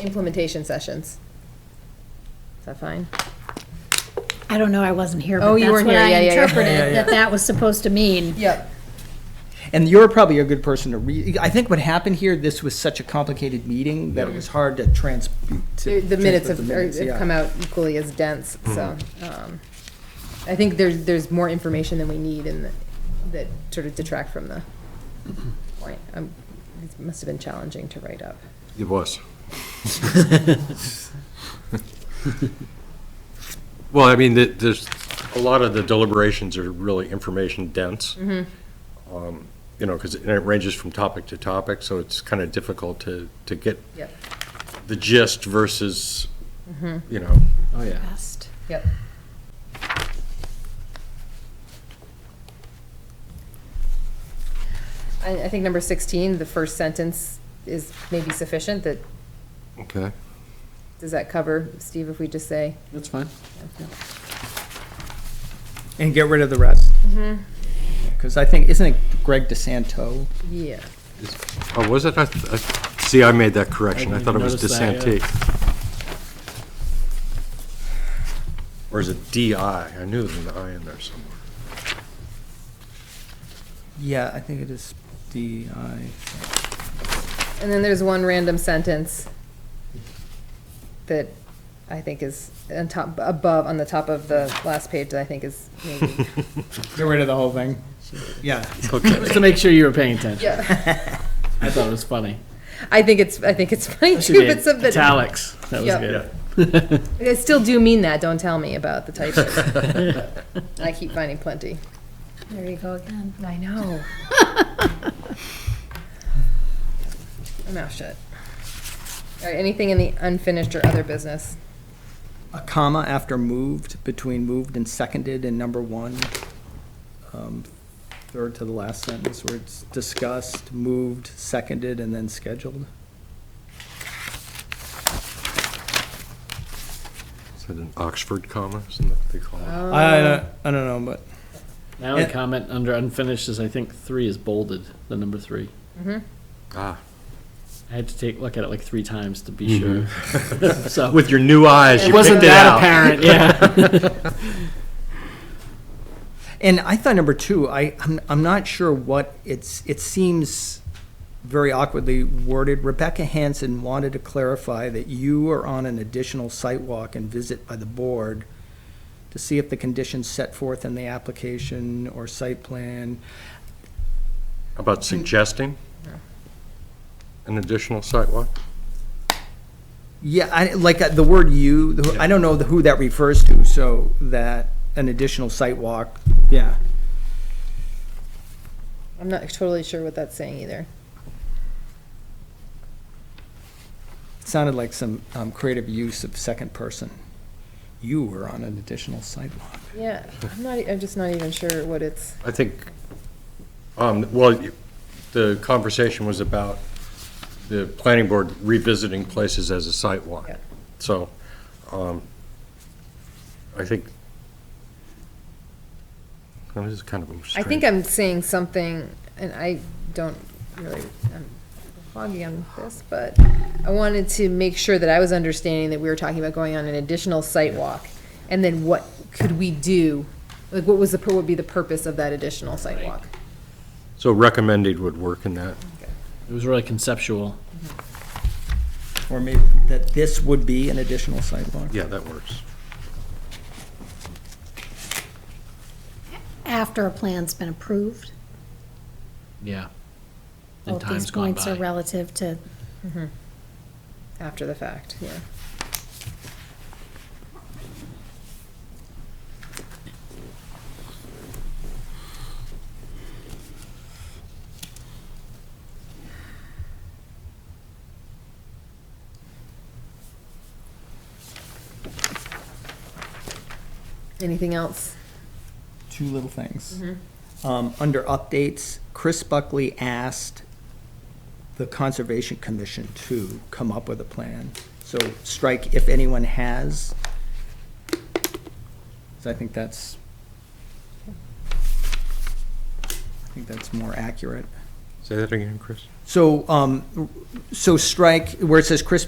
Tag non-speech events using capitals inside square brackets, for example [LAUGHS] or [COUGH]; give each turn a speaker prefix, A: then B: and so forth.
A: implementation sessions. Is that fine?
B: I don't know, I wasn't here,
A: Oh,
B: but
A: you
B: that's
A: weren't
B: what
A: here.
B: I
A: Yeah, yeah, yeah.
C: Yeah, yeah.
B: interpreted, that that was supposed to mean.
A: Yep.
D: And you're probably a good person to read. I think what happened here, this was such a complicated meeting that it was hard to trans.
A: The
D: to
A: the minutes
D: transpose
A: have,
D: the
A: are-
D: minutes,
A: have
D: yeah. Mm-hmm.
A: come out equally as dense, so, um, I think there's, there's more information than we need and that- that sort of detract from the
D: Mm-hmm.
A: point. Um, It must have been challenging to write up.
E: It was. Well, I mean, th- there's, a lot of the deliberations are really information dense.
C: Mm-hmm.
E: Um, You know, because it and it ranges from topic to topic, so it's kind of difficult to, to get
A: Yep,
E: the gist versus, you know.
C: Oh, yeah.
B: Best.
A: yep. I, I think number sixteen, the first sentence is maybe sufficient, that,
E: Okay.
A: does that cover, Steve, if we just say?
C: That's fine.
D: And get rid of the rest.
A: Mm-hmm.
D: Because I think, isn't it Greg DeSanto?
A: Yeah.
E: Oh, was it? I th- I th- See, I made that correction. I
C: didn't
E: thought it was
C: notice that, yeah.
E: DeSanti. Or is it DI? I knew there was an I in there somewhere.
D: Yeah, I think it is D I.
A: And then there's one random sentence that I think is on top, above, on the top of the last page that I think is maybe.
D: [LAUGHS] Get rid of the whole thing. Yeah.
C: Just to make sure you were paying attention.
A: Yeah,
C: I thought it was funny.
A: [LAUGHS] I think it's, I think it's funny
C: She
A: too,
C: did.
A: but something,
C: Italics. That was
A: Yeah.
C: good.
A: I still do mean that, don't tell me about the typos.
D: [LAUGHS]
A: I keep finding plenty.
B: There you go again.
A: I
B: [LAUGHS]
A: know. My mouth shut. All right, anything in the unfinished or other business?
D: [LAUGHS] A comma after moved, between moved and seconded in number one. um, Third to the last sentence where it's discussed, moved, seconded, and then scheduled.
E: Is that an Oxford comma? Isn't that what they call it?
D: I, don't- I don't know, but
C: [LAUGHS] My only
D: Yeah.
C: comment under unfinished is I think three is bolded, the number three.
E: Ah,
C: I had to take, look at it like three times to be sure.
E: [LAUGHS]
C: [LAUGHS] So,
E: With your new eyes,
C: it
E: Mm-hmm. you
C: wasn't
E: picked it
C: that
E: out.
C: apparent, yeah.
E: [LAUGHS]
D: And I thought number two, I, I'm, I'm not sure what it's, it seems very awkwardly worded. Rebecca Hanson wanted to clarify that you are on an additional site walk and visit by the board to see if the conditions set forth in the application or site plan.
E: About suggesting an additional sidewalk?
D: Yeah, I, like, uh, the word you, the- I don't know the- who that refers to, so that, an additional site walk, yeah.
A: I'm not totally sure what that's saying either.
D: Sounded like some um, creative use of second person. You were on an additional site walk.
A: Yeah, I'm not, e, I'm just not even sure what it's.
E: I think, um, well, the conversation was about the planning board revisiting places as a site walk.
A: Yeah.
E: So, um, I think, Oh, this is kind of a
A: I
E: strange.
A: think I'm saying something, and I don't really, I'm foggy on this, but I wanted to make sure that I was understanding that we were talking about going on an additional site walk, and then what could we do? Like, what was the, what would be the purpose of that additional site walk?
E: So recommended would work in that.
C: It was really conceptual.
D: Or maybe that this would be an additional sidewalk?
E: Yeah, that works.
B: After a plan's been approved,
C: Yeah. And
B: both these
C: time's gone
B: points are
C: by.
B: relative to,
A: After the fact, yeah. Anything else?
D: Two little things. Um, Under updates, Chris Buckley asked the Conservation Commission to come up with a plan. So strike if anyone has. 'Cause I think that's, I think that's more accurate.
E: Say that again, Chris.
D: So, um, so strike, where it says Chris